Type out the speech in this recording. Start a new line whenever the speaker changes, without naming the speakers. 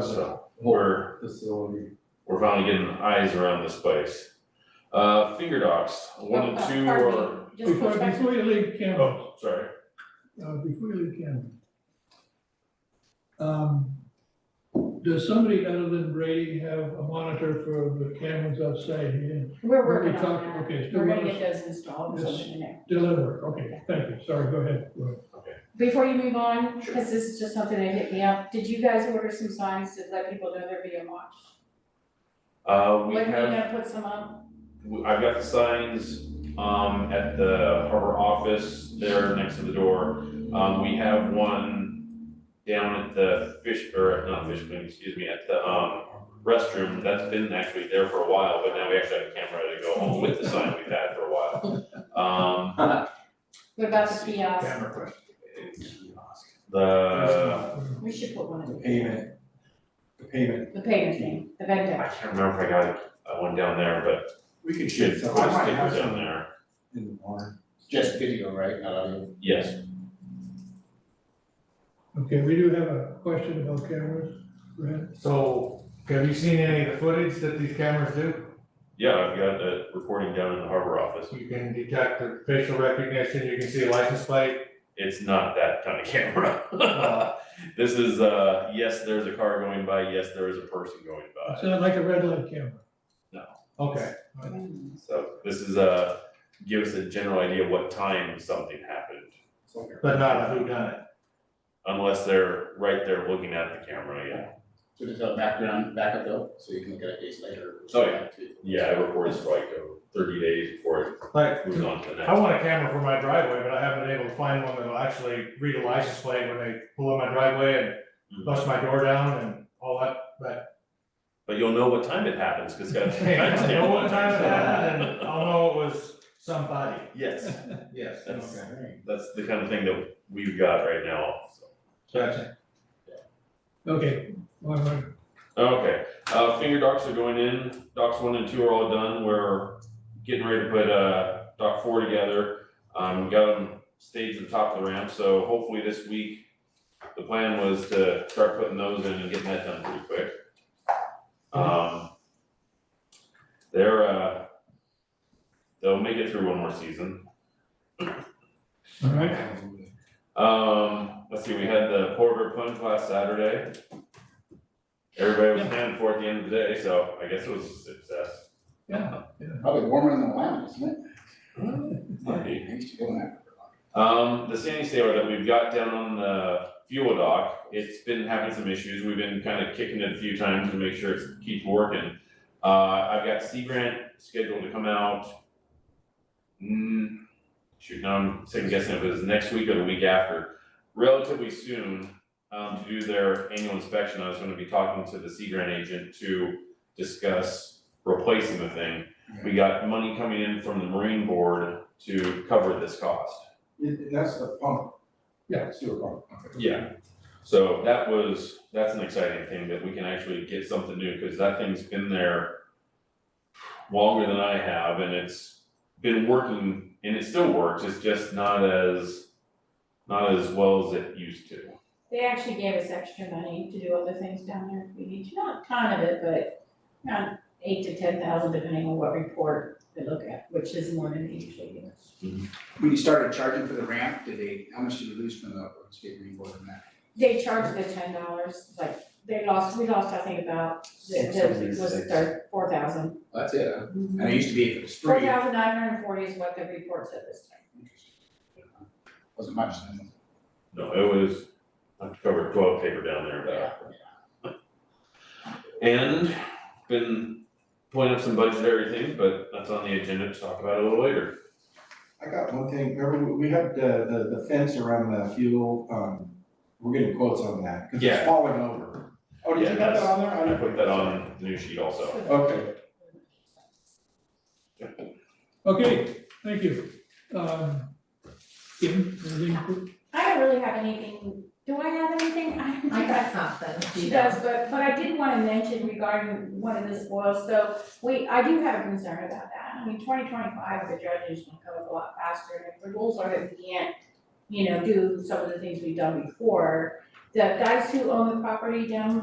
So we're,
facility.
we're finally getting eyes around this place. Uh, finger docks, one
Oh,
and
uh,
two
pardon me,
or,
just
Before,
goes back to-
before you leave, Kim, uh,
oh, sorry,
before you leave, Kim. Um, does somebody other than Brady have a monitor for the cameras outside here?
We're working
we talked-
on
okay,
that,
so
we're
what
gonna
is-
get those installed
Yes.
sometime in the next.
Deliver, okay, thank you, sorry, go ahead. Go ahead.
Before you move on,
Sure.
cause this is just something that hit me up, did you guys order some signs to let people know they're being watched?
uh, we
When are you
have,
gonna put some up?
w- I've got the signs, um, at the harbor office there next to the door. Um, we have one down at the fish, or not fish clean, excuse me, at the, um, restroom, that's been actually there for a while, but now we actually have a camera to go home with the sign we've had for a while. Um,
What about the kiosk?
question.
the,
We should put one of
The
them,
payment, the payment.
the payment thing, the vendor.
I can't remember if I got uh, one down there, but
We
it
could
should, put a sticker down there.
In the morning.
Just video, right, not audio?
Yes,
Okay, we do have a question about cameras, Brad.
So, have you seen any of the footage that these cameras do?
yeah, I've got a recording down in the harbor office.
You can detect the facial recognition, you can see a license plate.
It's not that kind of camera. This is, uh, yes, there's a car going by, yes, there is a person going
It's
by.
not like a red light camera.
Okay,
Mm.
So this is, uh, give us a general idea what time something happened,
but not a who done it.
unless they're right there looking at the camera, yeah.
So there's a background backup though, so you can look at it days later.
Oh, yeah. Yeah, I record this for like uh, thirty days before
Like,
it moves on to the next.
I want a camera for my driveway, but I haven't been able to find one that'll actually read a license plate when they pull in my driveway and bust my door down and all that, but.
But you'll know what time it happens, cause it's got a
I
timestamp
know
on
what
it,
time it
so-
happened, and I'll know it was somebody.
Yes,
Yes.
That's-
okay.
that's the kind of thing that we've got right now, so.
Gotcha.
Okay, one more.
Okay, uh, finger docks are going in, docks one and two are all done, we're getting ready to put, uh, dock four together. Um, got them staged at the top of the ramp, so hopefully this week, the plan was to start putting those in and getting that done pretty quick. Um, they're, uh, they'll make it through one more season.
all right,
Um, let's see, we had the Porter Punch last Saturday. Everybody was hand for at the end of the day, so I guess it was a success.
yeah.
Probably warmer than the lamp, isn't
Lucky.
it? I used to go in that.
Um, the Sandy Sailor that we've got down on the fuel dock, it's been having some issues. We've been kind of kicking it a few times to make sure it keeps working. Uh, I've got Sea Grant scheduled to come out. mm, shoot, now I'm second guessing if it was next week or the week after, relatively soon, um, to do their annual inspection. I was gonna be talking to the Sea Grant agent to discuss replacing the thing. We got money coming in from the Marine Board to cover this cost.
It- that's the pump.
Yeah.
Sewer pump. Okay.
Yeah, so that was, that's an exciting thing that we can actually get something new, cause that thing's been there longer than I have and it's been working and it still works, it's just not as, not as well as it used to.
They actually gave us extra money to do other things down there if we need to, not a ton of it, but around eight to ten thousand depending on what report they look at, which is more than they usually do.
When you started charging for the ramp, did they, how much did you lose from the state green board on that?
They charged the ten dollars, like, they lost, we lost, I think, about, the,
Six
the,
hundred
was
six.
third, four thousand.
That's it, huh? And it used to be if it was
Four
free,
thousand nine hundred and forty is what the report said this time.
wasn't much then.
No, it was, I've covered twelve paper down there, but. And been pulling up some budget everything, but that's on the agenda to talk about a little later.
I got one thing, remember, we had the, the, the fence around the fuel, um, we're getting quotes on that, cause
Yeah.
it's falling over. Oh, did
Yeah,
you have that
that's-
on there?
I
didn't
put that on the new sheet also.
Okay.
Okay, thank you. Um, Kim, anything?
I don't really have anything, do I have anything? I don't
I
think I-
got something.
She does, but, but I did wanna mention regarding one of the spoils, so we, I do have a concern about that. I mean, twenty twenty-five, the judges will come up a lot faster, and if the rules are that we can't, you know, do some of the things we've done before, the guys who own the property down